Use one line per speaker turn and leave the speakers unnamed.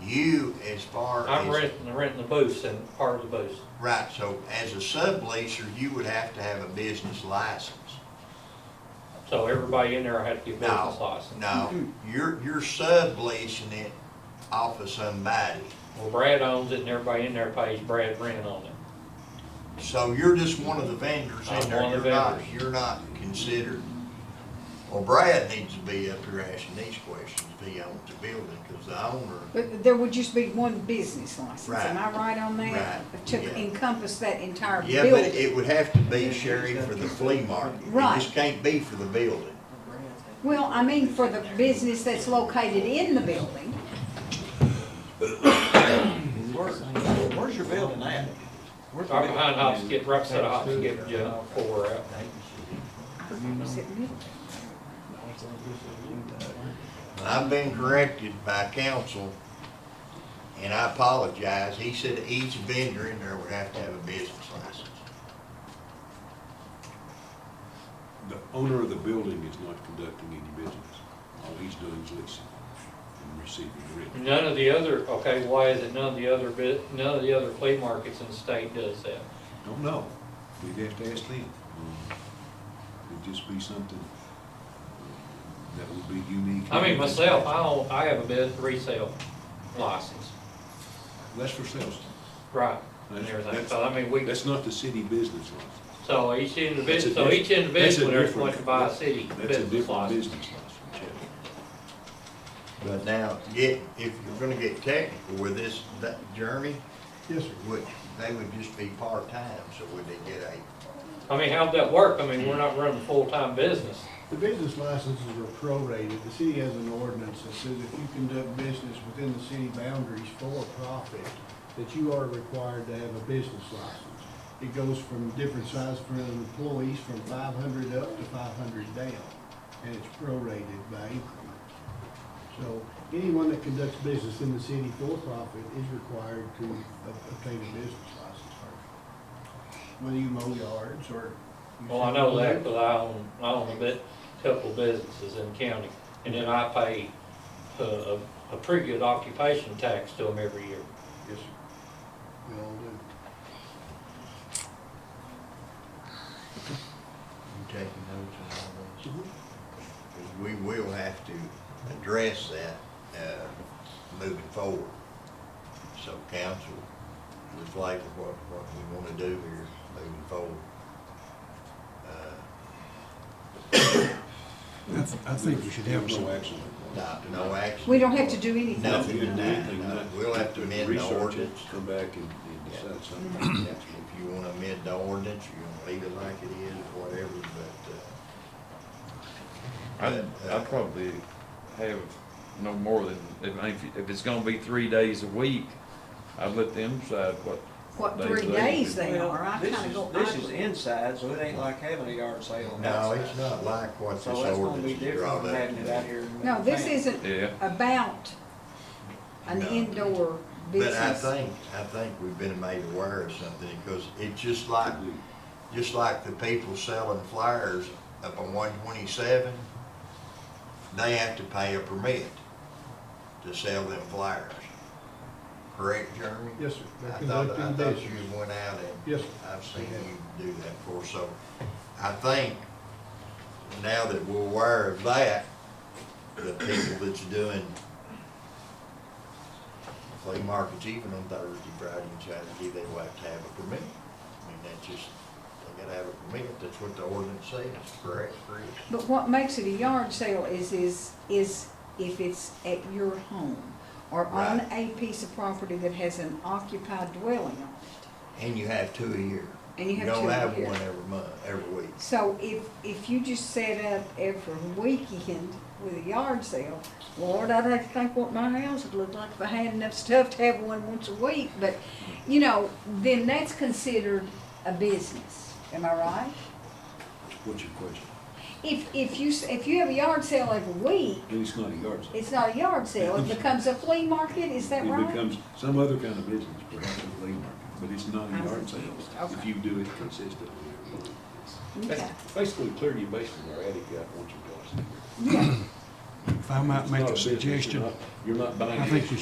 You, as far
I'm
as,
renting, renting the booths and part of the booths.
right, so as a subleaser, you would have to have a business license.
So everybody in there had to get
No.
business license.
No, you're, you're subleasing it off of somebody.
Well, Brad owns it and everybody in there pays Brad rent on it.
So you're just one of the vendors in
I'm
there,
one
you're
of the
not,
vendors.
you're not considered. Well, Brad needs to be up here asking these questions, if he owns the building, because the owner,
But there would just be one business license, am I right on that?
Right, yeah.
To encompass that entire
yeah, but
building.
it would have to be, Sherry, for the flea market. It
Right.
just can't be for the building.
Well, I mean, for the business that's located in the building,
Where, where's your building at? Where's your
Right behind
building?
Hops, get right beside Hops, get uh, four out.
is it
And I've been corrected by counsel, and I apologize. He said each vendor in there would have to have a business license.
The owner of the building is not conducting any business. All he's doing is leasing and receiving rent.
None of the other, okay, why is it none of the other bit, none of the other flea markets in the state does that?
Don't know. We'd have to ask them. Um, It'd just be something that would be unique.
I mean, myself, I own, I have a bit resale license,
That's for sales.
right, and
That's-
everything,
that's-
so I mean, we,
That's not the city business license.
so each
That's a
individual, so
diff-
each
that's a
individual, there's
different-
going to buy a city
That's a
business
different
license.
business license, yeah.
But now, get, if you're gonna get technical with this, that journey. Yes, sir. Would, they would just be part-time, so would they get a,
I mean, how'd that work? I mean, we're not running a full-time business.
The business licenses are prorated. The city has an ordinance that says if you conduct business within the city boundaries for profit, that you are required to have a business license. It goes from different sizes for employees, from five hundred up to five hundred down, and it's prorated by increments. So anyone that conducts business in the city for profit is required to ob- obtain a business license first. Whether you mow yards or. you
Well, I
sell
know that,
food.
but I own, I own a bit, couple businesses in the county, and then I pay a, a, a pretty good occupation tax to them every year.
Yes, sir. We all do.
you taking notes on all this? Because Mm-hmm. we will have to address that, uh, moving forward. So council, reflect on what, what we wanna do here moving forward. Uh,
I th- I think we should have
no
some,
action.
Not, no action.
we don't have to do anything.
No.
Nothing, nothing,
No,
nothing.
we'll have to amend the
Research it,
ordinance.
Come back and, and decide something.
Yeah, If you wanna amend the ordinance, you wanna leave it like it is, or whatever, but, uh,
I'd, I'd probably have no more than, if, I- if- if it's gonna be three days a week, I'd let them decide what,
What, three days they
Well,
are, I
this
kinda
is-
go.
This is inside, so it ain't like having a yard sale
no,
outside.
it's not like what this
So that's gonna
ordinance
be
is
different
brought
from having it out
up.
here. in
No, this
the van.
isn't
yeah.
about an
No.
indoor
But I
business.
think, I think we've been made aware of something, because it's just like, just like the people selling flyers up on one twenty-seven, they have to pay a permit to sell them flyers. Correct, Jeremy?
Yes, sir. They're
I thought, I
conducting
thought
business.
you went out and.
Yes, sir.
I've seen you do that before, so I think now that we're aware of that, the people that's doing flea markets even on Thursday, Friday, and Saturday, they will have to have a permit. I mean, that's just, they gotta have a permit, that's what the ordinance says, correct?
But what makes it a yard sale is, is, is if it's at your home or on a piece of property that has an occupied dwelling on it.
And you have two a year.
And you have two
don't
a
have
year.
one every month, every week.
So if, if you just set up every weekend with a yard sale, Lord, I'd have to think what my house would look like if I had enough stuff to have one once a week. But, you know, then that's considered a business, am I right?
What's your question?
If, if you, s- if you have a yard sale every week,
Then it's not a yard sale.
it's not a yard sale, it becomes a flea market, is that
It
right?
becomes some other kind of business, perhaps a flea market, but it's not
I'm
a yard sale
confused.
if
Okay.
you do it consistently.
Okay.
That's Basically, clear your basement or attic out once or twice a year.
Yeah.
if I might
It's
make
not
a
business, you're
suggestion,
not- You're not buying.
I think we